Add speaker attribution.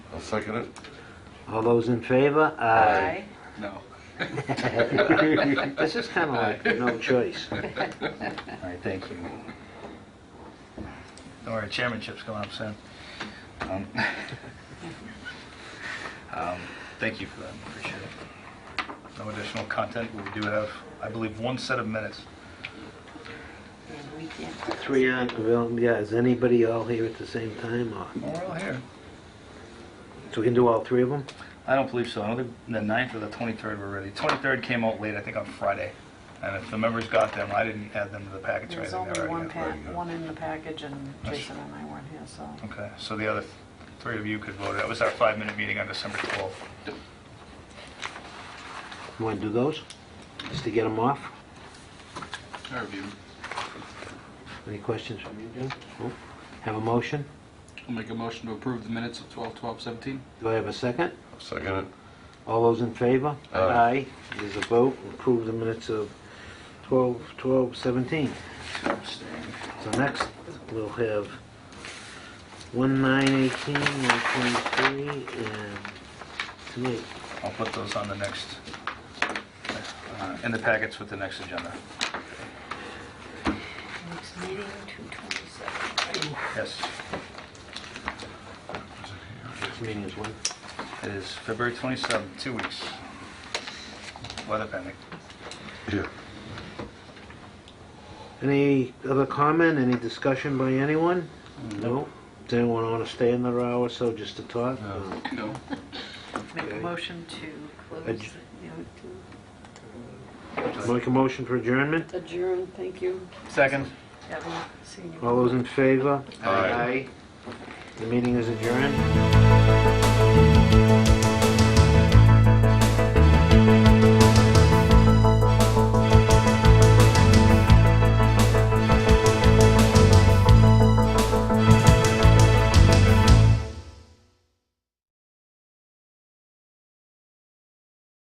Speaker 1: I'll second it.
Speaker 2: All those in favor?
Speaker 3: Aye.
Speaker 1: No.
Speaker 2: This is kind of like the no choice.
Speaker 4: All right, thank you. Don't worry, chairmanship's going up soon. Um, um, Thank you for that, appreciate it. No additional content, but we do have, I believe, one set of minutes.
Speaker 3: And we can't
Speaker 2: Three on, well, yeah, is anybody all here at the same time? or-
Speaker 4: Well, We're all here.
Speaker 2: So we can do all three of them?
Speaker 4: I don't believe so. I don't think the 9th or the 23rd were ready. 23rd came out late, I think on Friday. And if the members got them, I didn't add them to the packets right
Speaker 5: There's
Speaker 4: away.
Speaker 5: only one
Speaker 1: there
Speaker 5: pa,
Speaker 1: you go.
Speaker 5: one in the package, and
Speaker 4: That's-
Speaker 5: Jason and I weren't here, so.
Speaker 4: Okay, so the other three of you could vote. That was our five-minute meeting on December 12th.
Speaker 2: You want to do those? Just to get them off?
Speaker 1: I review.
Speaker 2: Any questions from you, Jim? No? Have a motion?
Speaker 6: I'll make a motion to approve the minutes of 12, 12, 17.
Speaker 2: Do I have a second?
Speaker 1: I'll second it.
Speaker 2: All those in favor?
Speaker 1: Aye.
Speaker 2: It is a vote. Approve the minutes of 12, 12, 17. So next, we'll have 1, 9, 18, 1, 23, and tonight.
Speaker 4: I'll put those on the next, uh, in the packets with the next agenda.
Speaker 3: Next meeting, 227.
Speaker 4: Yes,
Speaker 2: This meeting is when?
Speaker 4: it is February 27th, two weeks. Weather pending.
Speaker 1: Yeah.
Speaker 2: Any other comment, any discussion by anyone? No? Does anyone want to stay another hour or so just to talk?
Speaker 1: No.
Speaker 6: No.
Speaker 5: Make a
Speaker 2: Okay.
Speaker 5: motion to close,
Speaker 2: Adj-
Speaker 5: the- you know,
Speaker 2: Uh, Make a motion for adjournment?
Speaker 3: to Adjourn, thank you.
Speaker 4: Second.
Speaker 5: to have a senior.
Speaker 2: All those in favor?
Speaker 1: Aye.
Speaker 2: The meeting is adjourned.